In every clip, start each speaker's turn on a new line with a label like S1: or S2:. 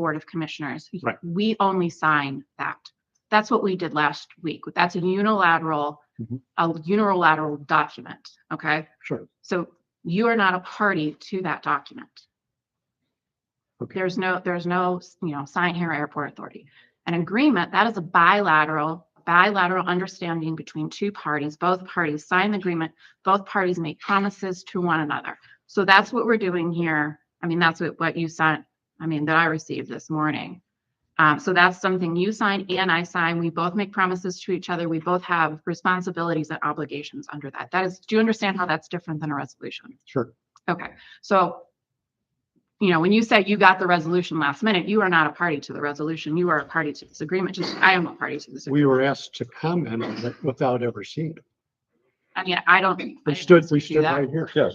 S1: Board of Commissioners.
S2: Right.
S1: We only sign that. That's what we did last week. That's a unilateral,
S2: Mhm.
S1: a unilateral document, okay?
S2: Sure.
S1: So you are not a party to that document.
S2: Okay.
S1: There's no, there's no, you know, sign here airport authority. An agreement, that is a bilateral, bilateral understanding between two parties. Both parties sign the agreement. Both parties make promises to one another. So that's what we're doing here. I mean, that's what, what you sent, I mean, that I received this morning. Um, so that's something you sign and I sign. We both make promises to each other. We both have responsibilities and obligations under that. That is, do you understand how that's different than a resolution?
S2: Sure.
S1: Okay, so you know, when you say you got the resolution last minute, you are not a party to the resolution. You are a party to this agreement. Just I am a party to this.
S2: We were asked to comment on it without ever seeing it.
S1: I mean, I don't. I
S2: We stood,
S1: didn't do
S2: we stood
S1: that.
S2: right here.
S3: Yes.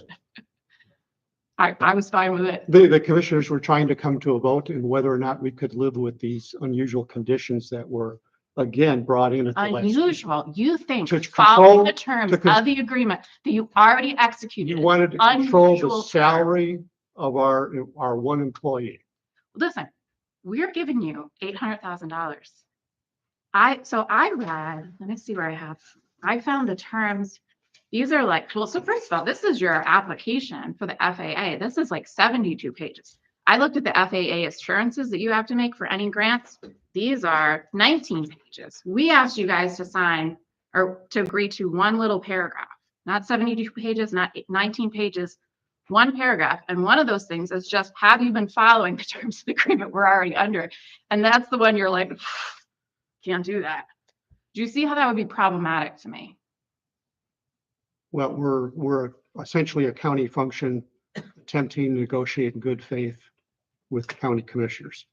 S1: I, I was fine with it.
S2: The, the commissioners were trying to come to a vote and whether or not we could live with these unusual conditions that were again brought in at the last. meeting.
S1: Unusual. You think
S2: To
S1: following
S2: control-
S1: the terms
S2: to con-
S1: of the agreement that you already
S2: You
S1: executed.
S2: wanted to control
S1: Unusual
S2: the
S1: term.
S2: salary of our, our one employee.
S1: Listen, we're giving you eight hundred thousand dollars. I, so I read, let me see where I have, I found the terms. These are like, well, so first of all, this is your application for the FAA. This is like seventy-two pages. I looked at the FAA assurances that you have to make for any grants. These are nineteen pages. We asked you guys to sign or to agree to one little paragraph, not seventy-two pages, not nineteen pages, one paragraph. And one of those things is just, have you been following the terms of the agreement we're already under? And that's the one you're like, can't do that. Do you see how that would be problematic to me?
S2: Well, we're, we're essentially a county function attempting to negotiate in good faith with county commissioners.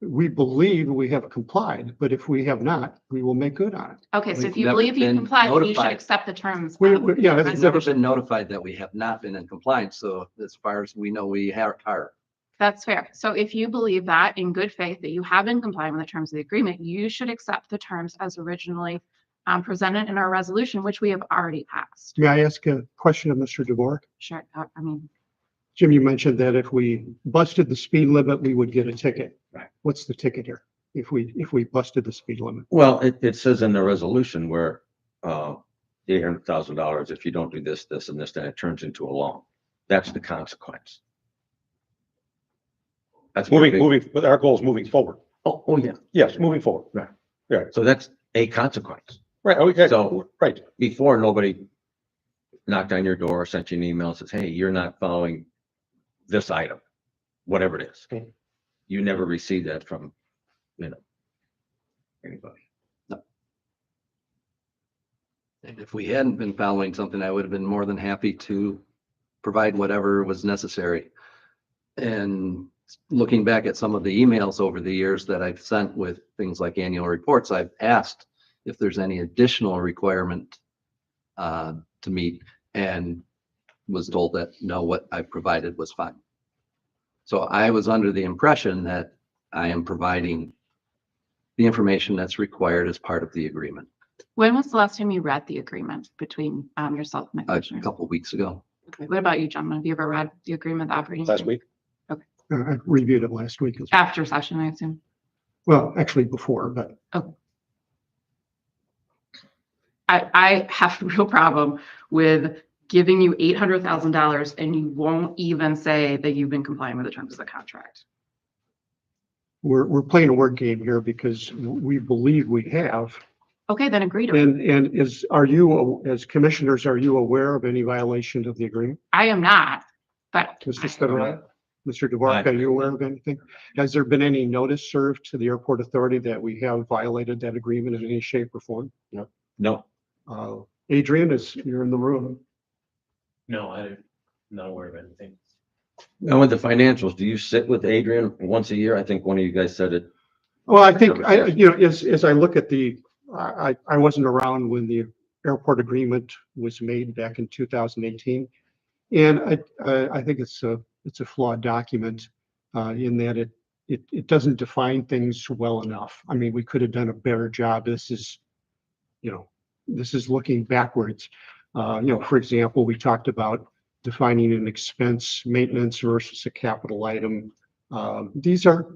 S2: We believe we have complied, but if we have not, we will make good on it.
S1: Okay, so
S3: We've
S1: if you
S3: never
S1: believe you
S3: been
S1: comply, then you should
S3: notified.
S1: accept the terms.
S2: We,
S1: of-
S2: we- yeah, it's
S3: We've
S2: never
S3: never been notified that we have not been in compliance, so as far as we know, we have are.
S1: That's fair. So if you believe that in good faith that you have been complying with the terms of the agreement, you should accept the terms as originally um, presented in our resolution, which we have already passed.
S2: May I ask a question of Mr. DeVore?
S1: Sure, uh, I I mean,
S2: Jim, you mentioned that if we busted the speed limit, we would get a ticket.
S3: Right.
S2: What's the ticket here? If we, if we busted the speed limit?
S4: Well, it, it says in the resolution where, uh, eight hundred thousand dollars, if you don't do this, this and this, then it turns into a loan. That's the consequence. That's my
S5: Moving,
S4: big-
S5: moving, but our goal is moving forward.
S4: Oh, oh, yeah.
S5: Yes, moving forward.
S4: So that's a consequence.
S5: Right, okay,
S4: So-
S5: right.
S4: Before, nobody knocked on your door, sent you an email, and says, hey, you're not following this item, whatever it is.
S5: Okay.
S4: You never received that from, you know, anybody.
S3: And if we hadn't been following something, I would have been more than happy to provide whatever was necessary. And looking back at some of the emails over the years that I've sent with things like annual reports, I've asked if there's any additional requirement uh, to meet and was told that no, what I provided was fine. So I was under the impression that I am providing the information that's required as part of the agreement
S1: when was the last time you read the agreement between um, yourself and the
S3: a
S1: commissioner?
S3: couple weeks ago.
S1: Okay, What about you, John? Have you ever read the agreement, the operating?
S5: Last
S1: agreement?
S5: week,
S2: Uh, I reviewed it last week. as-
S1: After session, I assume.
S2: Well, actually before, but
S1: I, I have a real problem with giving you eight hundred thousand dollars and you won't even say that you've been complying with the terms of the contract.
S2: we're, we're playing a word game here because we believe we have.
S1: Okay, then agree to it.
S2: And, and is, are you, as commissioners, are you aware of any violation of the agreement?
S1: I am not, but
S2: Mr. Stenock, Mr. DeVark,
S4: I-
S2: are you aware of anything? Has there been any notice served to the airport authority that we have violated that agreement in any shape or form?
S4: No,
S2: Uh, Adrian is, you're in the room.
S6: No, I'm not aware of anything.
S4: now with the financials, do you sit with Adrian once a year? I think one of you guys said it
S2: Well, I think, I, you know, as, as I look at the, I, I- I wasn't around when the airport agreement was made back in two thousand eighteen. And I, I, I think it's a, it's a flawed document, uh, in that it, it, it doesn't define things well enough. I mean, we could have done a better job. This is, you know, this is looking backwards. Uh, you know, for example, we talked about defining an expense maintenance versus a capital item. Um, these are,